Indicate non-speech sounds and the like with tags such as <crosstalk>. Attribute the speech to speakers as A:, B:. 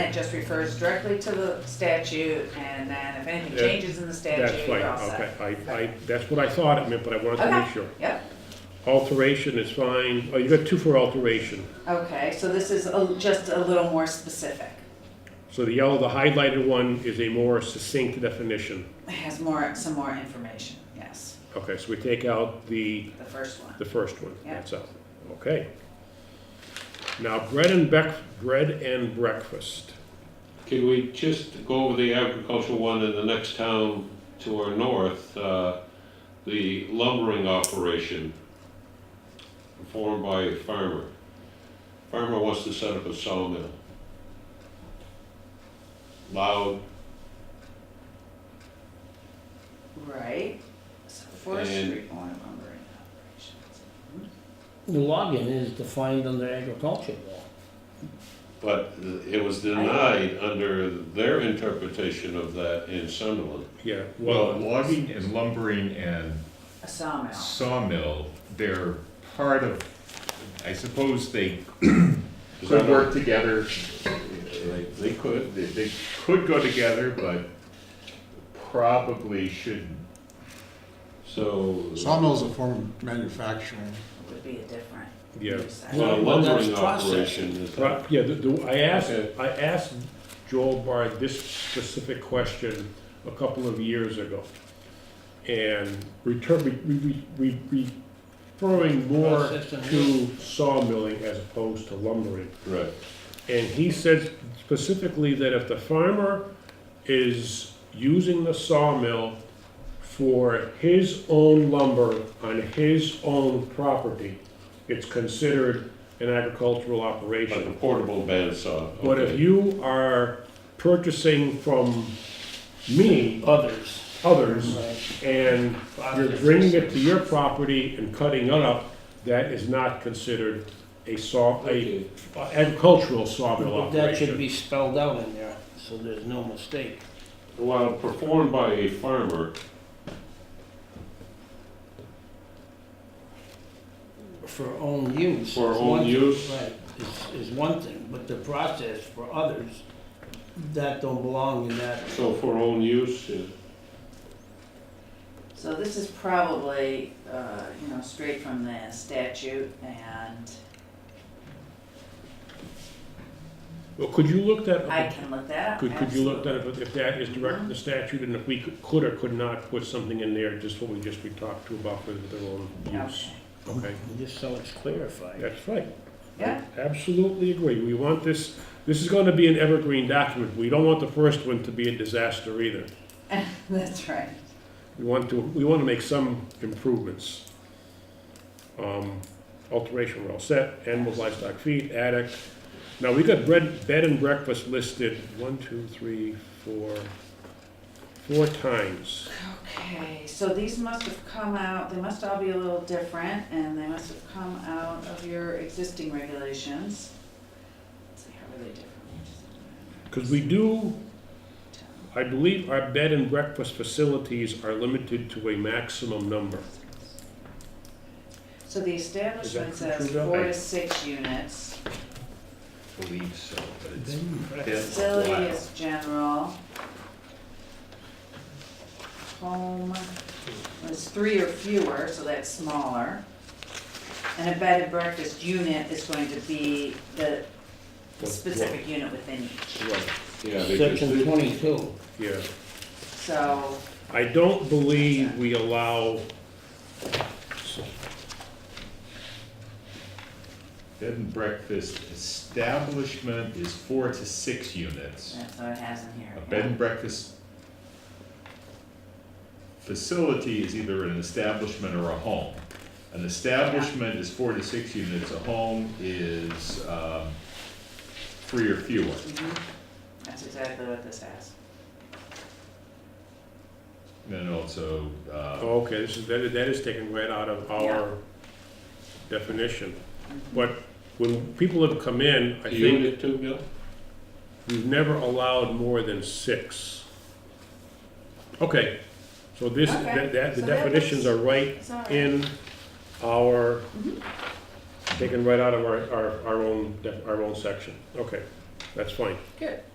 A: it just refers directly to the statute, and then if anything
B: Yeah,
A: changes in the statute,
B: That's
A: you're
B: right,
A: all set.
B: okay, I, I, that's what I thought it meant, but I wanted to
A: Okay.
B: make sure.
A: Yep,
B: Alteration is fine, oh, you got two for alteration.
A: okay, so this is a- just a little more specific.
B: So the yellow, the highlighted one is a more succinct definition.
A: It has more, some more information, yes,
B: Okay, so we take out the,
A: the first one.
B: the first one,
A: Yeah.
B: that's out, okay. Now, bread and bec, bread and breakfast.
C: Can we just go over the agricultural one in the next town to our north, uh, the lumbering operation performed by a farmer? Farmer wants to set up a sawmill. Loud
A: Right, so forestry on lumbering operations.
D: The logging is defined under agriculture law.
C: But it was denied under their interpretation of that in Sunderland.
B: Yeah,
E: Well,
B: well,
E: logging and lumbering and
A: A sawmill,
E: sawmill, they're part of, I suppose they
C: Is
E: could
C: that
E: work together.
C: They- They could,
E: They, they could go together, but probably shouldn't.
C: so.
F: Sawmill's a form of manufacturing.
A: would be a different.
B: yeah.
A: use.
C: So a
D: Well, that's
C: lumbering
D: process.
C: operation is.
B: Right, yeah, the, the, I asked,
C: Okay.
B: I asked Joel Bard this specific question a couple of years ago. And return, re, re, re, re- referring more
D: Process and-
B: to sawmilling as opposed to lumbering.
C: Right.
B: And he said specifically that if the farmer is using the sawmill for his own lumber on his own property, it's considered an agricultural
C: Like a
B: operation.
C: portable bandsaw.
B: But if
C: okay.
B: you are purchasing from me,
D: Others.
B: others, and you're bringing it to your property and cutting it up, that is not considered a saw, a uh,
C: Okay.
B: agricultural sawmill
D: But
B: operation.
D: that should be spelled out in there, so there's no mistake.
C: While performed by a farmer,
D: For own use.
C: For
D: is
C: own
D: one-
C: use.
D: Right, is, is one thing, but the process for others, that don't belong in that.
C: so for own use, uh,
A: So this is probably, uh, you know, straight from the statute and
B: Well, could you look that
A: I
B: up?
A: can look that up.
B: Could, could you look that
A: absolutely.
B: up, if that is direct in the statute, and if we could- could or could not put something in there, just what we just, we talked to about for their own use?
A: Okay.
B: Okay,
D: Just so it's clarified.
B: that's right.
A: Yeah, <laughs>
B: Absolutely agree. We want this, this is gonna be an evergreen document. We don't want the first one to be a disaster either.
A: that's right.
B: We want to, we want to make some improvements. Um, Alteration, we're all set, animals, livestock, feed, attic. Now, we got bread, bed and breakfast listed one, two, three, four, four times.
A: Okay, so these must have come out, they must all be a little different, and they must have come out of your existing regulations. Let's see, how are they different?
B: Because we do, I believe our bed and breakfast facilities are limited to a maximum number.
A: So the establishment
B: Is that true,
A: says
B: Bill?
A: four to six units.
E: Believe so, but
A: Facility is general. Home is three or fewer, so that's smaller. And a bed and breakfast unit is going to be the specific unit within each.
B: Right,
C: yeah, because
D: Section
C: this-
D: twenty-two.
B: Yeah.
A: So,
B: I don't believe we allow,
E: Bed and breakfast establishment is four to six units.
A: that's what it has in here.
E: A bed and breakfast facility is either an establishment or a home. An establishment is four to six units, a home is, um, three or fewer.
A: yeah. Mhm. That's exactly what this has.
E: And also, uh,
B: oh, okay, this is, that is- that is taken right out of our definition. But when people have come in, I
C: a
B: think
C: Unit two, Bill?
B: we've never allowed more than six. Okay, so this,
A: Okay,
B: that, that- the
A: so that
B: definitions are
A: was-
B: right
A: It's all right.
B: in our,
A: Mm-hmm.
B: taken right out of our, our, our own, def- our own section. Okay, that's fine.
A: Good.